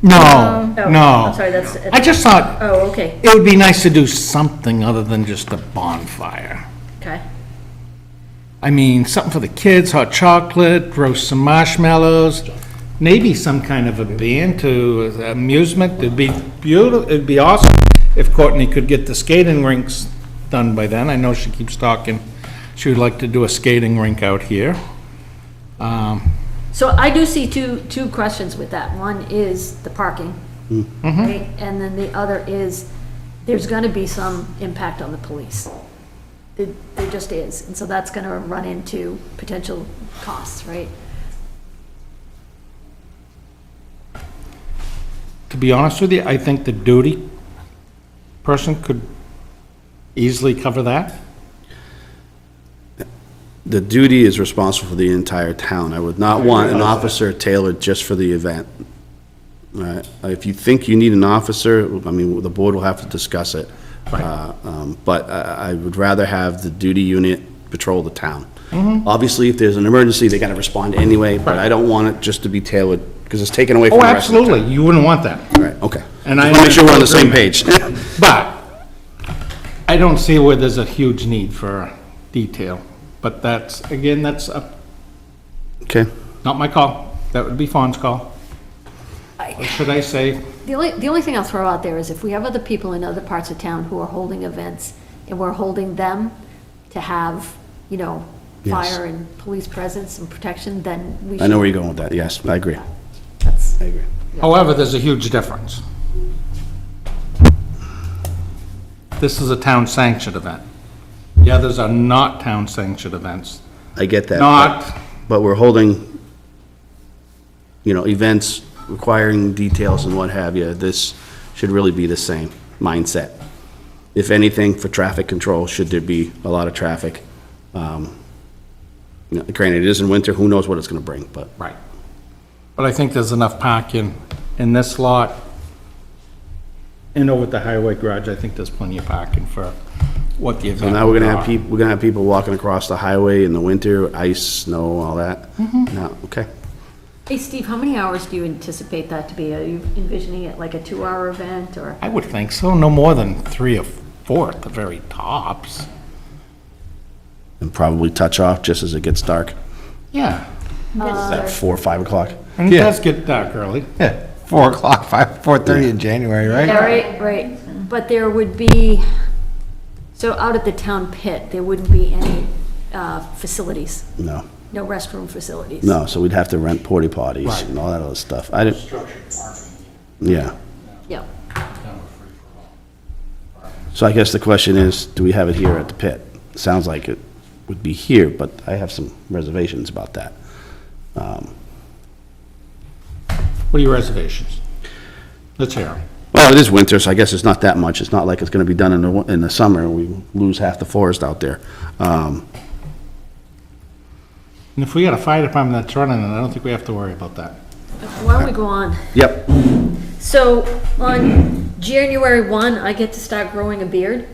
No, Oh, no. I'm sorry, that's- I just thought Oh, okay, it would be nice to do something other than just a bonfire. okay. I mean, something for the kids, hot chocolate, roast some marshmallows, maybe some kind of a band to uh, amusement. It'd be beautiful, it'd be awesome if Courtney could get the skating rinks done by then. I know she keeps talking, she would like to do a skating rink out here. So I do see two, two questions with that. One is the parking, Hmm. right? And then the other is, there's gonna be some impact on the police. It- There just is, and so that's gonna run into potential costs, right? To be honest with you, I think the duty person could easily cover that. The duty is responsible for the entire town. I would not want an officer tailored just for the event. All right, if you think you need an officer, I mean, the board will have to discuss it. Uh, um, But I I would rather have the duty unit patrol the town. Mm-hmm. Obviously, if there's an emergency, they gotta respond anyway, but I don't want it just to be tailored, because it's taken away from Oh, the rest of the town. absolutely, you wouldn't want that. Right, okay. And And I I make sure we're on the same am in page. But I don't see where there's a huge need for detail. But that's, again, that's uh, Okay, not my call. That would be Fawn's call. Or should I say, The only, the only thing I'll throw out there is if we have other people in other parts of town who are holding events, and we're holding them to have, you know, Yes. fire and police presence and protection, then we should. I know where you're going with that, yes, I agree, That's, I agree. however, there's a huge difference. This is a town-sanctioned event. The others are not town-sanctioned events. I get that. but- Not, But we're holding, you know, events requiring details and what have you. This should really be the same mindset. If anything, for traffic control, should there be a lot of traffic? um, you know, Granted, it is in winter, who knows what it's gonna bring, but right. But I think there's enough parking in this lot and over at the highway garage. I think there's plenty of parking for what the event now we're gonna have would be. people, we're gonna have people walking across the highway in the winter, ice, snow, all that. No, okay. hey, Steve, how many hours do you anticipate that to be? Are you envisioning it like a two-hour event, or? I would think so, no more than three or four at the very tops. And probably touch off just as it gets dark, Yeah. at four, five o'clock. And it does get dark early. Yeah, four o'clock, five, four thirty in January, right? Yeah, right, right. But there would be, so out at the town pit, there wouldn't be any uh, facilities, No, no restroom facilities? no, so we'd have to rent porta potties and all that other stuff. I didn't, yeah. Yeah. So I guess the question is, do we have it here at the pit? Sounds like it would be here, but I have some reservations about that. What are your reservations? Let's hear 'em. Well, it is winter, so I guess it's not that much. It's not like it's gonna be done in the, win- in the summer, and we lose half the forest out there. Um, And if we got a fire department that's running, then I don't think we have to worry about that. Why don't we go on? Yep, So on January 1, I get to start growing a beard?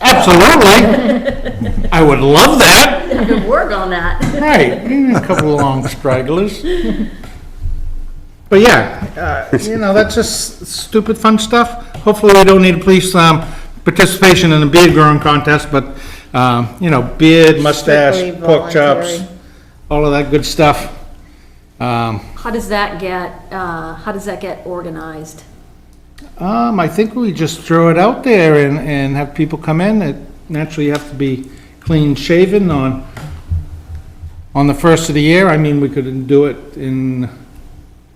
Absolutely. I would love that. Good work on that. Right, mm, a couple of long stragglers. But yeah, uh, you know, that's just stupid fun stuff. Hopefully, we don't need police um, participation in the beard growing contest, but, um, you know, beard, mustache, Strictly pork chops, voluntary. all of that good stuff. Um, How does that get, uh, how does that get organized? Um, I think we just throw it out there and, and have people come in. It Naturally, you have to be clean shaven on, on the first of the year. I mean, we could do it in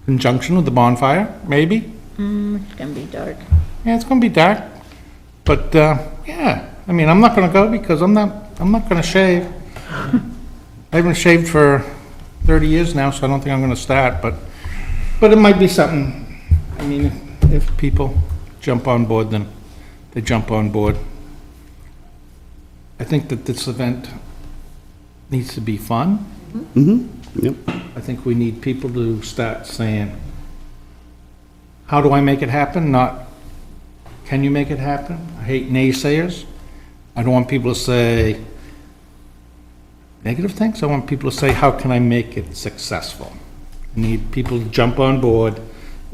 conjunction with the bonfire, maybe. Mm, It's gonna be dark. Yeah, it's gonna be dark, but, uh, yeah, I mean, I'm not gonna go because I'm not, I'm not gonna shave. I haven't shaved for thirty years now, so I don't think I'm gonna start, but, but it might be something, I mean, if- if people jump on board, then they jump on board. I think that this event needs to be fun. yep. I think we need people to start saying, how do I make it happen? Not, can you make it happen? I hate naysayers. I don't want people to say negative things. I want people to say, how can I make it successful? I Need people to jump on board